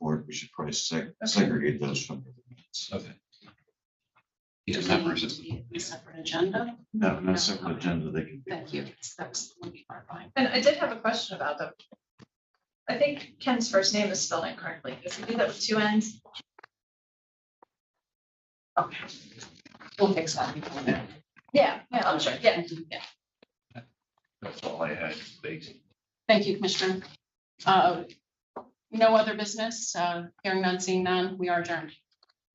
we should probably seg- segregate those from. the minutes. Okay. Do Yeah, we not need present. to be in a separate agenda? No, not separate agenda, they can. be- Thank you. That's would be our fine. And I did have a question about them. I think Ken's first name is spelled incorrectly. Does he do that with two N's? Okay. We'll fix that before then. Yeah, yeah, I'm sure. Yeah. That's all I had. Thanks. Thank you, Commissioner. Uh, No other business, uh, hearing none, seeing none, we are adjourned.